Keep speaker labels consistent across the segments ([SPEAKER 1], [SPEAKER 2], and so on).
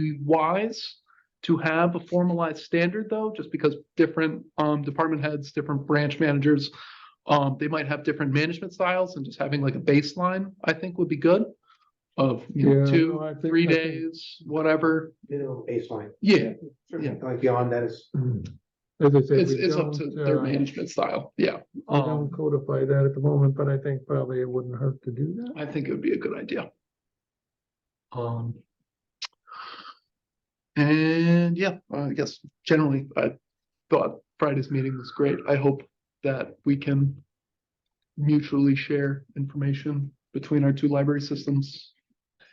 [SPEAKER 1] be wise to have a formalized standard though, just because different um department heads, different branch managers. Um, they might have different management styles and just having like a baseline, I think would be good. Of, you
[SPEAKER 2] Yeah,
[SPEAKER 1] know,
[SPEAKER 2] no, I
[SPEAKER 1] two,
[SPEAKER 2] think-
[SPEAKER 1] three
[SPEAKER 2] I think-
[SPEAKER 1] days, whatever.
[SPEAKER 3] minimum baseline.
[SPEAKER 1] Yeah,
[SPEAKER 3] Certainly, Going beyond that is,
[SPEAKER 2] As I said,
[SPEAKER 1] it's
[SPEAKER 2] we
[SPEAKER 1] it's up to
[SPEAKER 2] don't,
[SPEAKER 1] their
[SPEAKER 2] uh,
[SPEAKER 1] management style. Yeah.
[SPEAKER 2] We don't
[SPEAKER 1] Um,
[SPEAKER 2] codify that at the moment, but I think probably it wouldn't hurt to do that.
[SPEAKER 1] I think it would be a good idea. Um. And yeah, I guess generally, I thought Friday's meeting was great. I hope that we can. Mutually share information between our two library systems.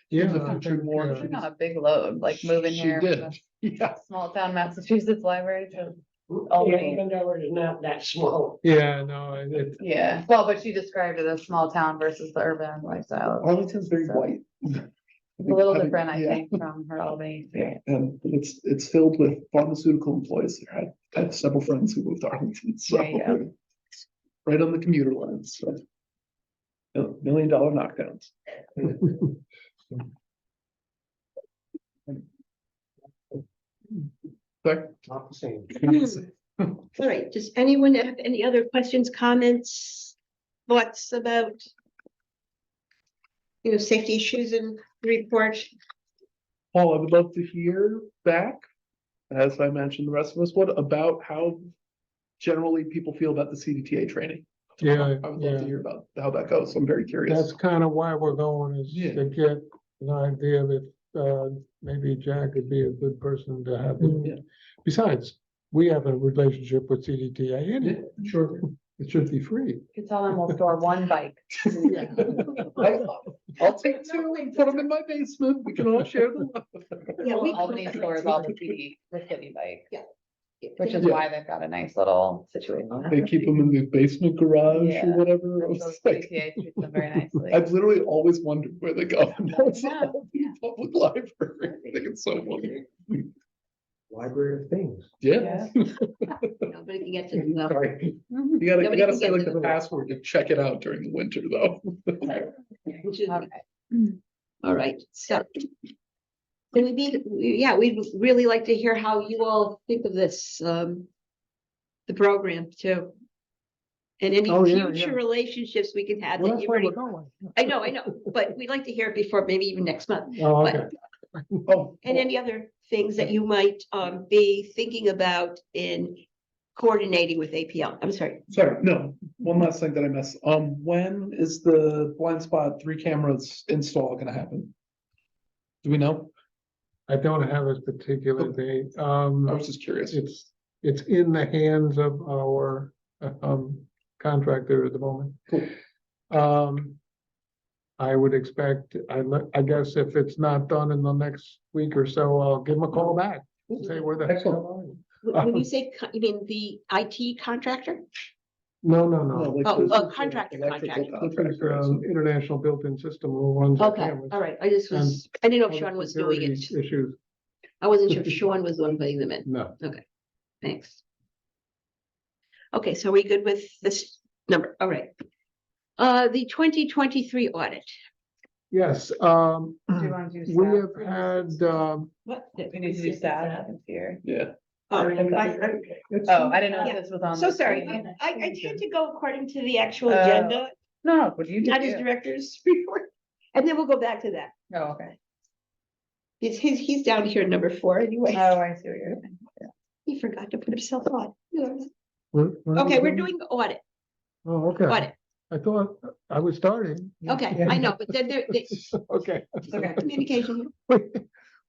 [SPEAKER 2] Yeah.
[SPEAKER 1] the future more-
[SPEAKER 2] yeah.
[SPEAKER 4] Not a big load, like moving
[SPEAKER 1] She
[SPEAKER 4] here.
[SPEAKER 1] did.
[SPEAKER 4] from
[SPEAKER 1] Yeah,
[SPEAKER 4] a Small town Massachusetts library to, Oh,
[SPEAKER 3] yeah,
[SPEAKER 4] man.
[SPEAKER 3] Andover is not that small.
[SPEAKER 2] Yeah, no, and it,
[SPEAKER 4] yeah, well, but she described it as small town versus the urban
[SPEAKER 2] Oh,
[SPEAKER 4] lifestyle.
[SPEAKER 1] Arlington's very
[SPEAKER 4] So,
[SPEAKER 1] white.
[SPEAKER 4] A little different, I think, from her Albany experience.
[SPEAKER 1] And it's, it's filled with pharmaceutical employees there. I I have several friends who moved to Arlington, so.
[SPEAKER 4] There you go.
[SPEAKER 1] Right on the commuter lines, so. Mil- Million dollar knockdowns. Sorry.
[SPEAKER 3] Not the same.
[SPEAKER 5] All right, does anyone have any other questions, comments, thoughts about? You know, safety issues and report?
[SPEAKER 1] Paul, I would love to hear back, as I mentioned, the rest of us, what about how generally people feel about the CDTA training?
[SPEAKER 2] Yeah,
[SPEAKER 1] I would love to
[SPEAKER 2] yeah.
[SPEAKER 1] hear about how that goes. I'm very
[SPEAKER 2] that's
[SPEAKER 1] curious.
[SPEAKER 2] kind of why we're going is
[SPEAKER 1] Yeah.
[SPEAKER 2] to get an idea that, uh, maybe Jack would be a good person to have.
[SPEAKER 1] Mm, yeah.
[SPEAKER 2] Besides, we have a relationship with CDTA anyway. Sure. It should be free.
[SPEAKER 4] You could tell them we'll store one bike.
[SPEAKER 1] I- I'll take two and put them in my basement. We can all share them.
[SPEAKER 5] Yeah, we-
[SPEAKER 4] Albany stores all the CD, the city bike, which is
[SPEAKER 1] Yeah.
[SPEAKER 4] why they've got a nice little situation.
[SPEAKER 2] Oh,
[SPEAKER 1] They keep them in the basement garage
[SPEAKER 4] Yeah.
[SPEAKER 1] or whatever. I was
[SPEAKER 4] So
[SPEAKER 1] like,
[SPEAKER 4] CTA treats them very nicely.
[SPEAKER 1] I've literally always wondered where they go. Now it's
[SPEAKER 4] Yeah,
[SPEAKER 1] all in Public library. I think it's so wonderful.
[SPEAKER 3] Library of things.
[SPEAKER 1] Yeah.
[SPEAKER 5] Nobody can get to them.
[SPEAKER 3] Sorry.
[SPEAKER 1] You gotta, you
[SPEAKER 5] Nobody
[SPEAKER 1] gotta
[SPEAKER 5] can
[SPEAKER 1] say
[SPEAKER 5] get
[SPEAKER 1] like
[SPEAKER 5] to
[SPEAKER 1] the
[SPEAKER 5] the-
[SPEAKER 1] password to check it out during the winter though.
[SPEAKER 5] which is-
[SPEAKER 4] All right.
[SPEAKER 5] All right, so. Then we need, yeah, we'd really like to hear how you all think of this, um. The program too. And any
[SPEAKER 2] Oh, yeah, yeah.
[SPEAKER 5] future relationships we can have.
[SPEAKER 2] Well,
[SPEAKER 5] that
[SPEAKER 2] that's
[SPEAKER 5] you've
[SPEAKER 2] where we're
[SPEAKER 5] already-
[SPEAKER 2] going.
[SPEAKER 5] I know, I know, but we'd like to hear it before, maybe even next month.
[SPEAKER 2] Oh,
[SPEAKER 5] But-
[SPEAKER 2] okay.
[SPEAKER 1] Oh,
[SPEAKER 5] And any other things that you might um be thinking about in coordinating with APL? I'm sorry.
[SPEAKER 1] oh, sorry, no, one last thing that I missed. Um, when is the blind spot three cameras install gonna happen? Do we know?
[SPEAKER 2] I don't have a
[SPEAKER 1] Oh.
[SPEAKER 2] particular date. Um.
[SPEAKER 1] I was just curious.
[SPEAKER 2] It's, it's in the hands of our, um, contractor at the moment.
[SPEAKER 1] Cool.
[SPEAKER 2] Um, I would expect, I, le- I guess if it's not done in the next week or so, I'll give them a call back. and Say where the heck.
[SPEAKER 1] Excellent.
[SPEAKER 2] are you?"
[SPEAKER 5] Wh- When you say, co- you mean the IT contractor?
[SPEAKER 2] No, no,
[SPEAKER 1] No,
[SPEAKER 2] no.
[SPEAKER 1] like
[SPEAKER 5] Oh,
[SPEAKER 1] the-
[SPEAKER 5] oh, contractor,
[SPEAKER 1] electrical
[SPEAKER 5] contractor.
[SPEAKER 2] It's,
[SPEAKER 1] contractor.
[SPEAKER 2] um, international built-in system who runs. the
[SPEAKER 5] Okay,
[SPEAKER 2] cameras.
[SPEAKER 5] all right. I just was,
[SPEAKER 4] um,
[SPEAKER 5] I didn't know if Sean was doing it.
[SPEAKER 2] Security Issues,
[SPEAKER 5] I wasn't sure if Sean was the one putting them in.
[SPEAKER 2] no.
[SPEAKER 5] Thanks. Okay, so are we good with this number? All right. Uh, the twenty twenty-three audit.
[SPEAKER 2] Yes, um,
[SPEAKER 4] Do you wanna do
[SPEAKER 2] we
[SPEAKER 4] staff
[SPEAKER 2] have
[SPEAKER 4] first?
[SPEAKER 2] had, um,
[SPEAKER 5] What?
[SPEAKER 4] We need to do staff here.
[SPEAKER 1] Yeah,
[SPEAKER 5] Oh, I-
[SPEAKER 4] Oh, I didn't know if
[SPEAKER 5] Yeah.
[SPEAKER 4] this was on.
[SPEAKER 5] So
[SPEAKER 4] the
[SPEAKER 5] sorry. I,
[SPEAKER 4] screen.
[SPEAKER 5] I tend to go according to the actual
[SPEAKER 4] Oh.
[SPEAKER 5] agenda,
[SPEAKER 4] No, what do you do?
[SPEAKER 5] not his director's report. And then we'll go back to that.
[SPEAKER 4] Oh, okay.
[SPEAKER 5] He's, he's, he's down here number four
[SPEAKER 4] Oh,
[SPEAKER 5] anyway.
[SPEAKER 4] I see what you're saying.
[SPEAKER 5] He forgot to put himself on.
[SPEAKER 2] we're-
[SPEAKER 5] Okay, we're doing audit,
[SPEAKER 2] Oh, okay.
[SPEAKER 5] audit.
[SPEAKER 2] I thought I was starting.
[SPEAKER 5] Okay, I know, but then there, they-
[SPEAKER 2] Okay.
[SPEAKER 5] communication.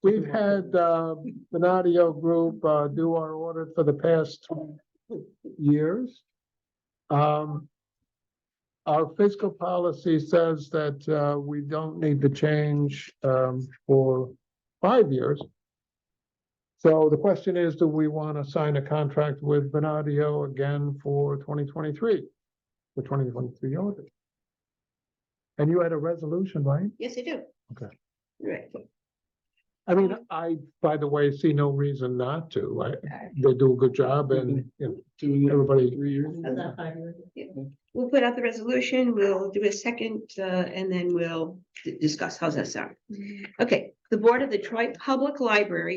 [SPEAKER 2] We've had uh, Benadio Group uh, do our audit for the past three years. Um, Our fiscal policy says that uh, we don't need to change um, for five years. So the question is, do we want to sign a contract with Benadio again for 2023? The 2023 audit? And you had a resolution, right?
[SPEAKER 5] Yes, I do.
[SPEAKER 2] Okay.
[SPEAKER 5] Right.
[SPEAKER 2] I mean, I, by the way, see no reason not to. I, they do a good job and, you know,
[SPEAKER 1] Mm-hmm. Doing
[SPEAKER 2] everybody.
[SPEAKER 1] three years.
[SPEAKER 5] We'll put out the resolution, we'll do a second, uh, and then we'll d- discuss how's that sound. Okay, the Board of the Troy Public Library